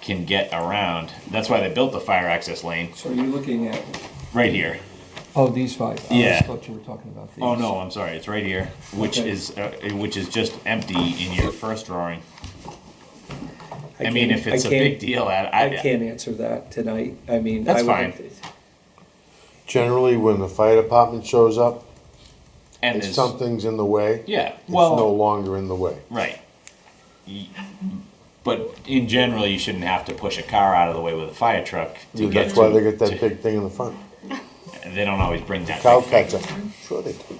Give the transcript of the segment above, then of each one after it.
can get around. That's why they built the fire access lane So you're looking at, right here. oh, these five? Yeah. I thought you were talking about these. Oh no, I'm sorry, it's right here, which Okay. is, uh, which is just empty in your first drawing. I mean, can't- e- if it's I a can't- big deal, I, I I, can't answer that tonight. I mean. That's I would- fine. Generally, when the fire department shows up, and if it's, something's in the way, yeah, it's no well, longer in the way. right. Y- But in general, you shouldn't have to push a car out of the way with a fire truck to get That's why to- they get that to- big thing in the front. They don't always bring that. Cow big- catcher. Sure they do.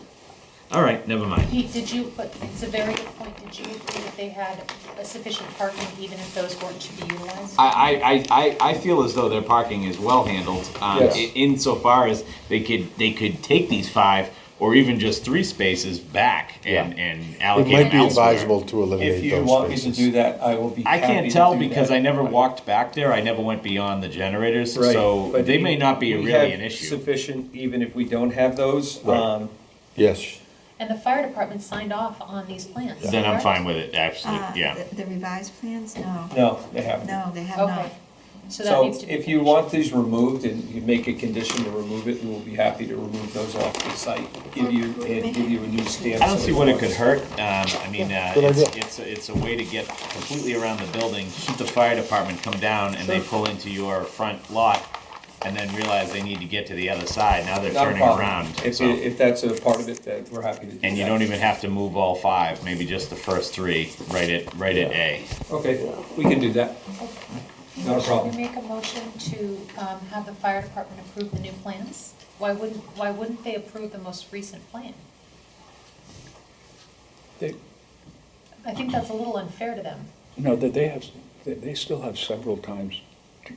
All right, never mind. Pete, did you, but it's a very good point, did you think that they had a sufficient parking even if those weren't to be utilized? I, I, I, I feel as though their parking is well handled, um, Yes. i- insofar as they could, they could take these five or even just three spaces back and, and It allocate might them be elsewhere. advisable to If eliminate you want those me to spaces. do that, I will be I happy to can't tell do because that. I never walked back there, I never went beyond the generators, Right, so but they may not be we really have an issue. Sufficient, even if we don't have those, Right. um, Yes. And the fire department signed off on these plans. Then I'm correct? fine with it, Uh, absolutely, yeah. the- The revised plans, no, no, they haven't. no, they have not. Okay, so that So needs to be. if you finished. want these removed and you make a condition to remove it, we'll be happy to remove those off the site, give you, and give you a new stamp. I don't so see what it it's- could hurt, um, I mean, uh, Good it's, idea. it's, a- it's a way to get completely around the building, shoot the fire department, come down, and they Sure. pull into your front lot, and then realize they need to get to the other side, now they're Not a turning problem. around, If, so. it- if that's a part of it, that we're happy to do And you that. don't even have to move all five, maybe just the first three, right at, right at A. Okay, we can do that. Not a problem. Should we make a motion to um, have the fire department approve the new plans? Why wouldn't, why wouldn't they approve the most recent plan? They, I think that's a little unfair to them. no, that they have, they, they still have several times. to-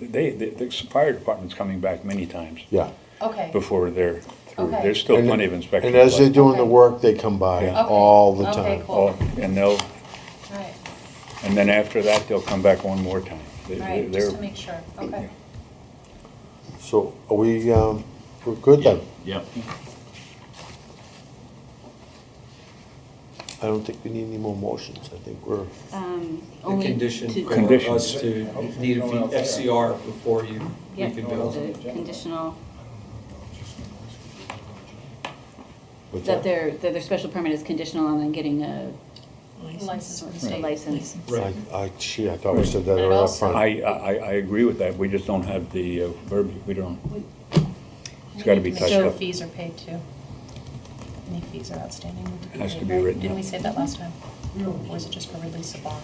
They, the, the fire department's coming back many times Yeah. Okay, before they're through. Okay. There's still And- plenty of inspections. And as they're left. doing the Okay. work, they come by Yeah. Okay. all the Okay, time. cool. Oh, And they'll, all right, and then after that, they'll come back one more time. They- all they- right, they're- just to make sure, okay. So are we, um, we're good then? Yep. I don't think we need any more motions. I think we're, The um, Only to- condition for Conditions. us to need a fee- FCR before you, we Yeah, can build. the conditional, what's that that? their, that their special permit is conditional on them getting a License from the a state. license. I, I, gee, I thought we said that And it right up also- front. I, I, I agree with that. We just don't have the uh, verbiage. We don't, it's gotta We be need to touched make sure up. fees are paid too. Any fees are outstanding. need Has to paid, be right? written Didn't up. we say that last time? Or was it just for release of bond?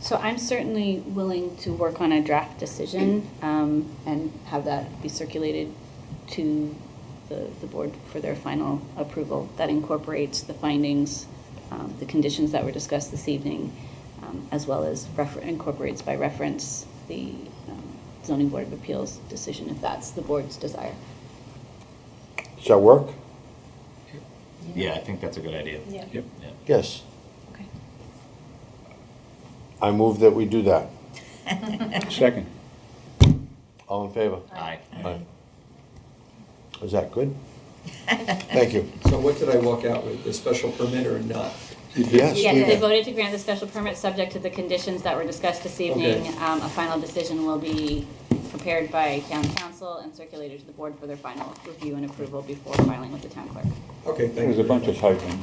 So I'm certainly willing to work on a draft decision um, and have that be circulated to the, the board for their final approval. That incorporates the findings, um, the conditions that were discussed this evening, um, as well as refer, incorporates by reference the um, zoning board of appeals decision, if that's the board's desire. Does that work? Yeah, I think that's a good idea. Yeah. Yep. Yeah. Yes. Okay. I move that we do that. Second, All in favor? Aye. Aye. Is that good? Thank you. So what did I walk out with, the special permit or not? Yes. Yes, they voted to grant the special permit, subject to the conditions that were discussed this evening. Okay. Um, A final decision will be prepared by town council and circulated to the board for their final review and approval before filing with the town clerk. Okay, thank there's a you. bunch of typing.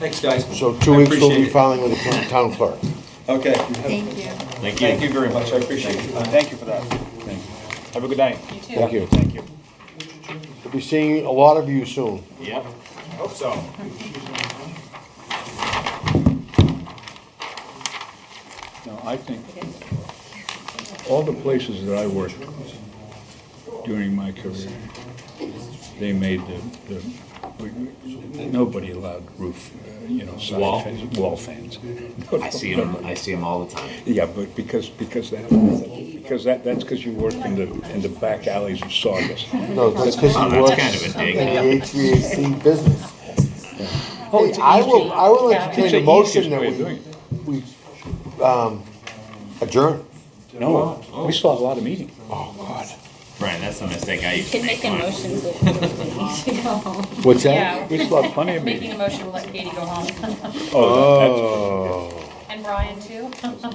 Thanks, guys. So two I weeks we'll be appreciate it. filing with the town clerk. Okay. Thank you. Thank Thank you. you very much, I appreciate it. Thank you for that. Have a good night. You too. Thank you. Thank you. We'll be seeing a lot of you soon. Yep. Hope so. No, I think all the places that I worked during my career, they made the, the, we- nobody allowed roof, uh, you know, Wall? side fence, wall fans. I see him. I see him all the time. Yeah, but because, because that, because that, that's because you worked in the, in the back alleys of Saugus. No, that's because Oh, he that's works kind of a dig. in the HVAC business. Hey, I will, I will entertain a motion that we, we, um, adjourn. No, we still have a lot of meetings. Brian, that's the mistake I used to Can make. make a Come on. motion to to go home. What's Yeah, We still have plenty of making meetings. a motion, we'll let Katie go home. Oh, that's- Oh. And Brian too.